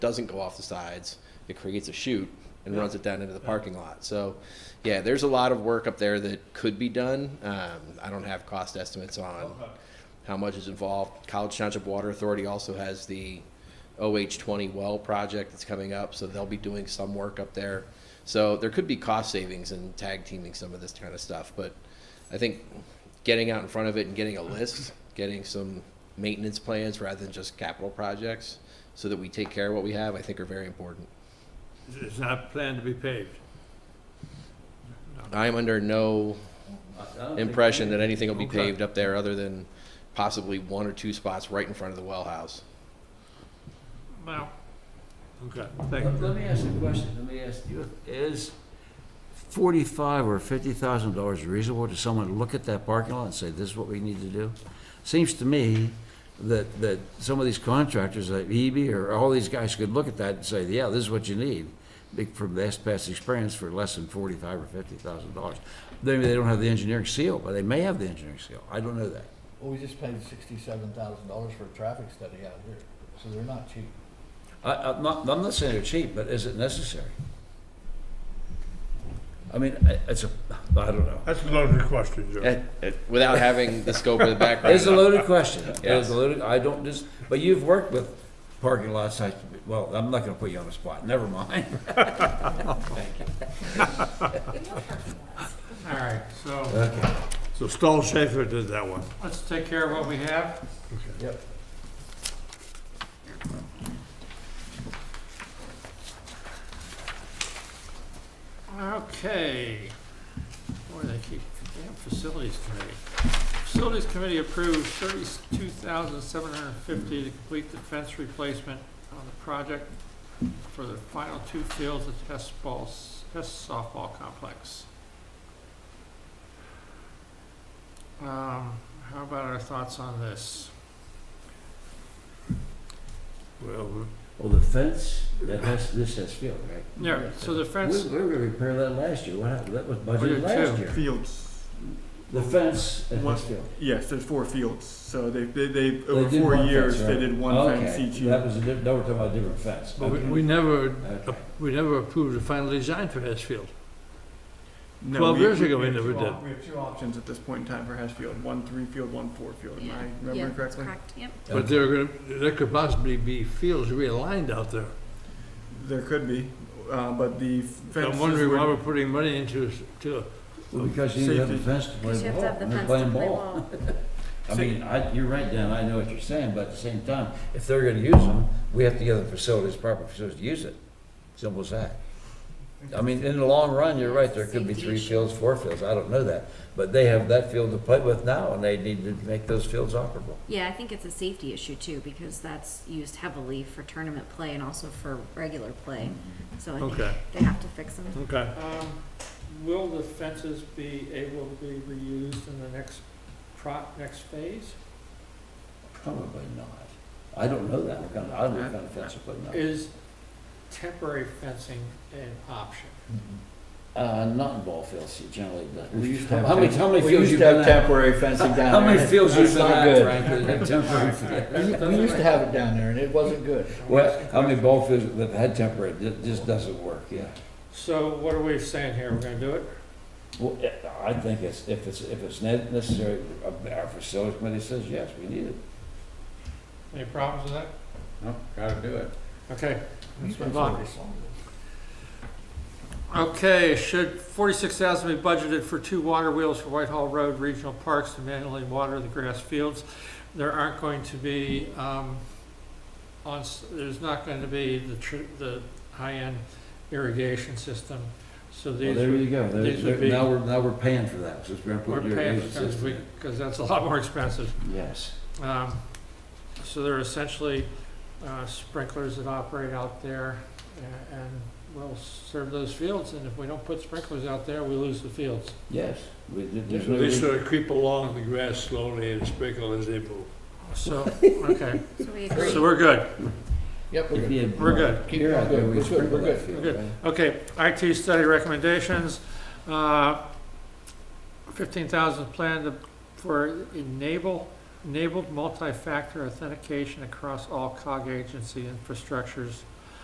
doesn't go off the sides. It creates a chute and runs it down into the parking lot. So, yeah, there's a lot of work up there that could be done. Um, I don't have cost estimates on how much is involved. College Township Water Authority also has the OH20 well project that's coming up, so they'll be doing some work up there. So there could be cost savings in tag teaming some of this kind of stuff, but I think getting out in front of it and getting a list, getting some maintenance plans rather than just capital projects, so that we take care of what we have, I think are very important. It's not planned to be paved. I am under no I- I don't think- impression that anything will be Okay. paved up there other than possibly one or two spots right in front of the well house. Well, okay, thank Let let you. me ask you a question, let me ask you, is forty-five or fifty thousand dollars reasonable to someone to look at that parking lot and say, this is what we need to do? Seems to me that, that some of these contractors, like EB or all these guys could look at that and say, yeah, this is what you need, big- from this past experience for less than forty-five or fifty thousand dollars. Maybe they don't have the engineering seal, but they may have the engineering seal, I don't know that. Well, we just paid sixty-seven thousand dollars for a traffic study out here, so they're not cheap. I, I'm not, I'm not saying they're cheap, but is it necessary? I mean, I- it's a, I don't know. That's a loaded question, Joe. Eh, eh, Without having the scope of the background. It's a loaded question. It's Yes. a loaded, I don't just, but you've worked with parking lots, I, well, I'm not gonna put you on the spot, never mind. All right, so Okay. So Stahl Schaefer did that one. let's take care of what we have. Yep. Okay. Boy, they keep, damn facilities committee. Facilities committee approved thirty-two thousand seven hundred and fifty to complete the fence replacement on the project for the final two fields of test balls, test softball complex. Um, how about our thoughts on this? Well, Well, the fence, that has, this has field, right? Yeah, so the We, fence, we were gonna repair that last year, what happened, that was We budgeted did last too. year. Fields, The fence at One- this field. yes, there's four fields, so they, they, they, They over did four one fence, years, right? they did one fence Okay, each year. That was a, diff- now we're talking about a different fence. but we- Okay. we never, Okay. we never approved the final design for Hatfield. No, 12 we- years we- ago we we have never two did. op- We have two options at this point in time for Hatfield, one three field, one four field, am I Yeah, remembering that's correctly? correct, yep. But there are gonna, there could possibly be fields realigned out there. There could be, uh, but the I'm fences wondering why we're were, putting money into, s- to, Well, because you need to have the Safety. fence to play Because you have ball, to have the and they're fence to playing play ball. ball. I mean, I, you're right, Dan, I know what you're saying, but at the same time, if they're gonna use them, we have to give the facilities, proper facilities to use it. Simple as that. I mean, in the long run, you're right, there could be three Safety issue. fields, four fields, I don't know that. But they have that field to play with now, and they need to make those fields operable. Yeah, I think it's a safety issue too, because that's used heavily for tournament play and also for regular play. Mm-hmm. So I Okay. think they have to fix them. okay. um, will the fences be able to be reused in the next pro, next phase? Probably not. I don't know that, I don't know what kind of fence to put up. Is temporary fencing an option? Uh, not in ball fields, you generally don't. Mm-hmm. We used to have How many, temp- how many we fields used you to been have at? temporary fencing down How there. many fields you That's been not at, good. Frank, that have temporary fields? We- We used to have it down there, and it wasn't good. Well, I mean, both is, that had temporary, it just doesn't work, yeah. So what are we saying here? We're gonna do it? Well, I- I think it's, if it's, if it's ne- necessary, uh, our facilities committee says, yes, we need it. Any problems with that? No, gotta do it. Okay, let's move on. Well, Okay, should forty-six thousand be budgeted for two water wheels for Whitehall Road Regional Parks to manually water the grass fields? There aren't going to be, um, on, s- there's not going to be the tr- the high-end irrigation system, so Well, these there you would- go, There- these would there- be- now we're, now we're paying for that, since we're gonna we're put your paying, agents because we, because that's a lot more expensive. Yes. Um, so they're essentially, uh, sprinklers that operate out there a- and will serve those fields, and if we don't put sprinklers out there, we lose the fields. Yes, we, there- there's no They reason. sort of creep along the grass slowly and sprinkle as they move. So, okay, So we agree. so we're good. Yep, we're If good. you had We're good. Keep Here, I going. think we We're good. sprinkle We're that good. field, We're good. right? Okay, IT study recommendations. Uh, 15,000 planned to- for enable, enabled multi-factor authentication across all COG agency infrastructures